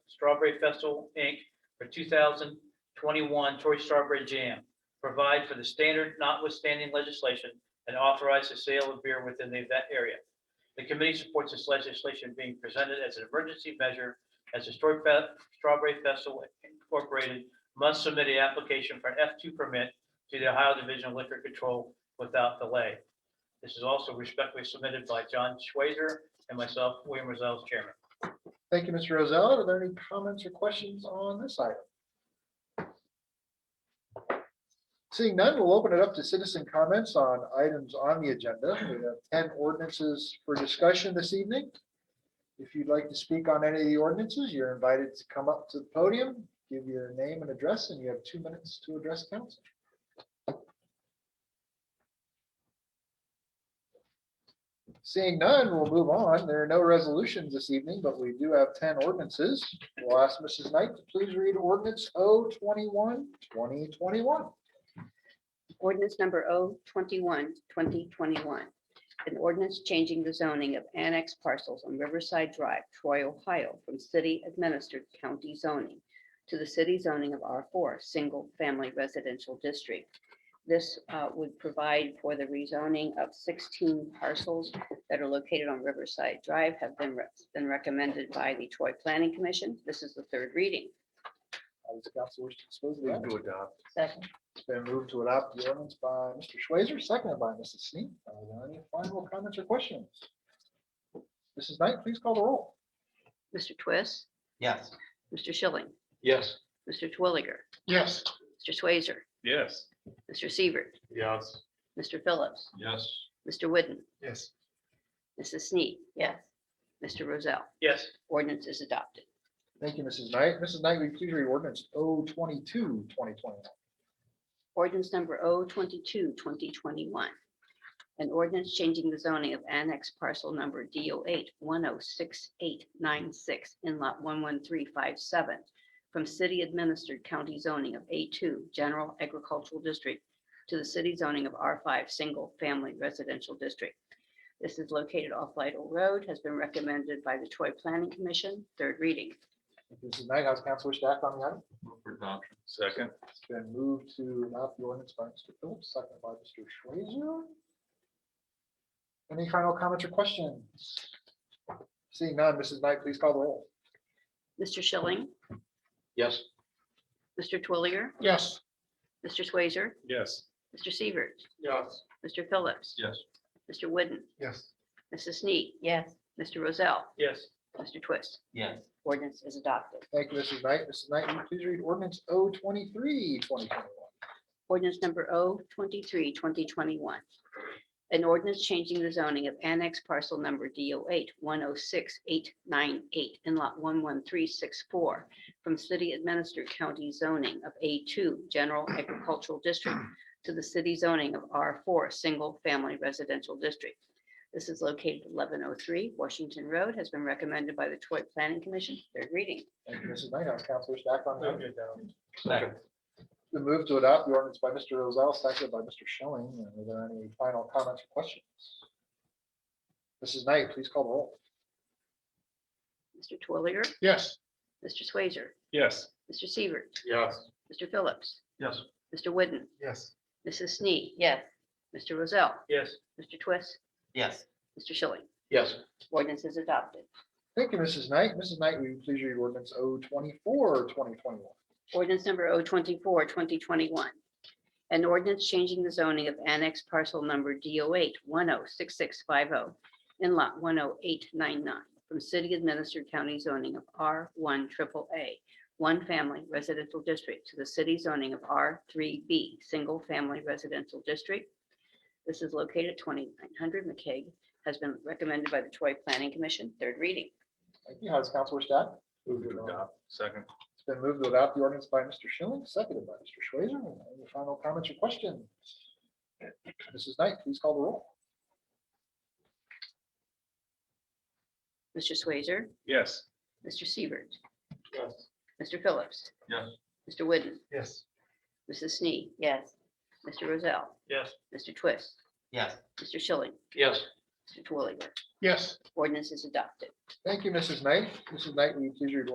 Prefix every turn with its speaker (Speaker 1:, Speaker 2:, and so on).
Speaker 1: Strawberry Festival, Inc. for 2021 Troy Strawberry Jam. Provide for the standard notwithstanding legislation and authorize the sale of beer within the event area. The committee supports this legislation being presented as an emergency measure as the Stor- Fe- Strawberry Festival Incorporated must submit an application for an F2 permit to the Ohio Division of Liquor Control without delay. This is also respectfully submitted by John Schwazer and myself, William Rosales, Chairman.
Speaker 2: Thank you, Mr. Rozell. Are there any comments or questions on this item? Seeing none, we'll open it up to citizen comments on items on the agenda. We have ten ordinances for discussion this evening. If you'd like to speak on any of the ordinances, you're invited to come up to the podium, give your name and address, and you have two minutes to address council. Seeing none, we'll move on. There are no resolutions this evening, but we do have ten ordinances. We'll ask Mrs. Knight to please read ordinance 021-2021.
Speaker 3: Ordinance number 021, 2021. An ordinance changing the zoning of annex parcels on Riverside Drive, Troy, Ohio, from city administered county zoning to the city zoning of R4, Single Family Residential District. This uh, would provide for the rezoning of 16 parcels that are located on Riverside Drive have been re- been recommended by the Troy Planning Commission. This is the third reading.
Speaker 2: How does council wish to dispose of the item?
Speaker 4: adopt.
Speaker 3: Second.
Speaker 2: It's been moved to adopt the ordinance by Mr. Schweizer, seconded by Mrs. Sneak. Are there any final comments or questions? Mrs. Knight, please call the roll.
Speaker 3: Mr. Twist,
Speaker 1: Yes.
Speaker 3: Mr. Schilling,
Speaker 4: Yes.
Speaker 3: Mr. Twilliger,
Speaker 2: Yes.
Speaker 3: Mr. Swazer,
Speaker 4: Yes.
Speaker 3: Mr. Seaver,
Speaker 4: Yes.
Speaker 3: Mr. Phillips,
Speaker 4: Yes.
Speaker 3: Mr. Whidden,
Speaker 4: Yes.
Speaker 3: Mrs. Snead. Yes. Mr. Rozell.
Speaker 1: Yes,
Speaker 3: Ordinance is adopted.
Speaker 2: Thank you, Mrs. Knight. Mrs. Knight, will you please read ordinance 022-2021.
Speaker 3: Ordinance number 022, 2021. An ordinance changing the zoning of annex parcel number DO8 106896 in lot 11357 from city administered county zoning of A2 General Agricultural District to the city zoning of R5 Single Family Residential District. This is located off Lytle Road, has been recommended by the Troy Planning Commission, third reading.
Speaker 2: Thank you, Mrs. Knight, how's council wish to act on the item?
Speaker 4: For adoption. Second.
Speaker 2: It's been moved to adopt the ordinance by Mr. Phillips, second by Mr. Schweizer. Any final comments or questions? Seeing none, Mrs. Knight, please call the roll.
Speaker 3: Mr. Schilling,
Speaker 4: Yes.
Speaker 3: Mr. Twilliger,
Speaker 2: Yes.
Speaker 3: Mr. Swazer,
Speaker 4: Yes.
Speaker 3: Mr. Seaver,
Speaker 4: Yes.
Speaker 3: Mr. Phillips,
Speaker 4: Yes.
Speaker 3: Mr. Whidden,
Speaker 2: Yes.
Speaker 3: Mrs. Snead. Yes. Mr. Rozell,
Speaker 1: yes.
Speaker 3: Mr. Twist.
Speaker 1: Yes.
Speaker 3: Ordinance is adopted.
Speaker 2: Thank you, Mrs. Knight. Mrs. Knight, will you please read ordinance 023-2021.
Speaker 3: Ordinance number 023, 2021. An ordinance changing the zoning of annex parcel number DO8 106898 in lot 11364 from city administered county zoning of A2 General Agricultural District to the city zoning of R4 Single Family Residential District. This is located at 1103 Washington Road, has been recommended by the Troy Planning Commission, third reading.
Speaker 2: Thank you, Mrs. Knight. House council wish to act on the item?
Speaker 4: Second.
Speaker 2: The move to adopt the ordinance by Mr. Rozell, seconded by Mr. Schilling. Are there any final comments or questions? Mrs. Knight, please call the roll.
Speaker 3: Mr. Twilliger,
Speaker 2: Yes.
Speaker 3: Mr. Swazer,
Speaker 4: Yes.
Speaker 3: Mr. Seaver,
Speaker 4: Yes.
Speaker 3: Mr. Phillips,
Speaker 4: Yes.
Speaker 3: Mr. Whidden,
Speaker 4: Yes.
Speaker 3: Mrs. Snead. Yes. Mr. Rozell,
Speaker 1: Yes.
Speaker 3: Mr. Twist,
Speaker 1: Yes.
Speaker 3: Mr. Schilling.
Speaker 4: Yes.
Speaker 3: Ordinance is adopted.
Speaker 2: Thank you, Mrs. Knight. Mrs. Knight, will you please read ordinance 024-2021.
Speaker 3: Ordinance number 024, 2021. An ordinance changing the zoning of annex parcel number DO8 106650 in lot 10899 from city administered county zoning of R1 triple A, one family residential district to the city zoning of R3B, single family residential district. This is located at 2900 McCaig, has been recommended by the Troy Planning Commission, third reading.
Speaker 2: Thank you. How does council wish to act?
Speaker 4: Move to adopt. Second.
Speaker 2: It's been moved to adopt the ordinance by Mr. Schilling, seconded by Mr. Schweizer. Any final comments or questions? Mrs. Knight, please call the roll.
Speaker 3: Mr. Swazer,
Speaker 4: Yes.
Speaker 3: Mr. Siebert,
Speaker 4: Yes.
Speaker 3: Mr. Phillips.
Speaker 4: Yes.
Speaker 3: Mr. Whidden,
Speaker 4: Yes.
Speaker 3: Mrs. Snead. Yes. Mr. Rozell,
Speaker 1: Yes.
Speaker 3: Mr. Twist,
Speaker 1: Yes.
Speaker 3: Mr. Schilling,
Speaker 4: Yes.
Speaker 3: Mr. Twilliger.
Speaker 4: Yes.
Speaker 3: Ordinance is adopted.
Speaker 2: Thank you, Mrs. Knight. Mrs. Knight, will you please read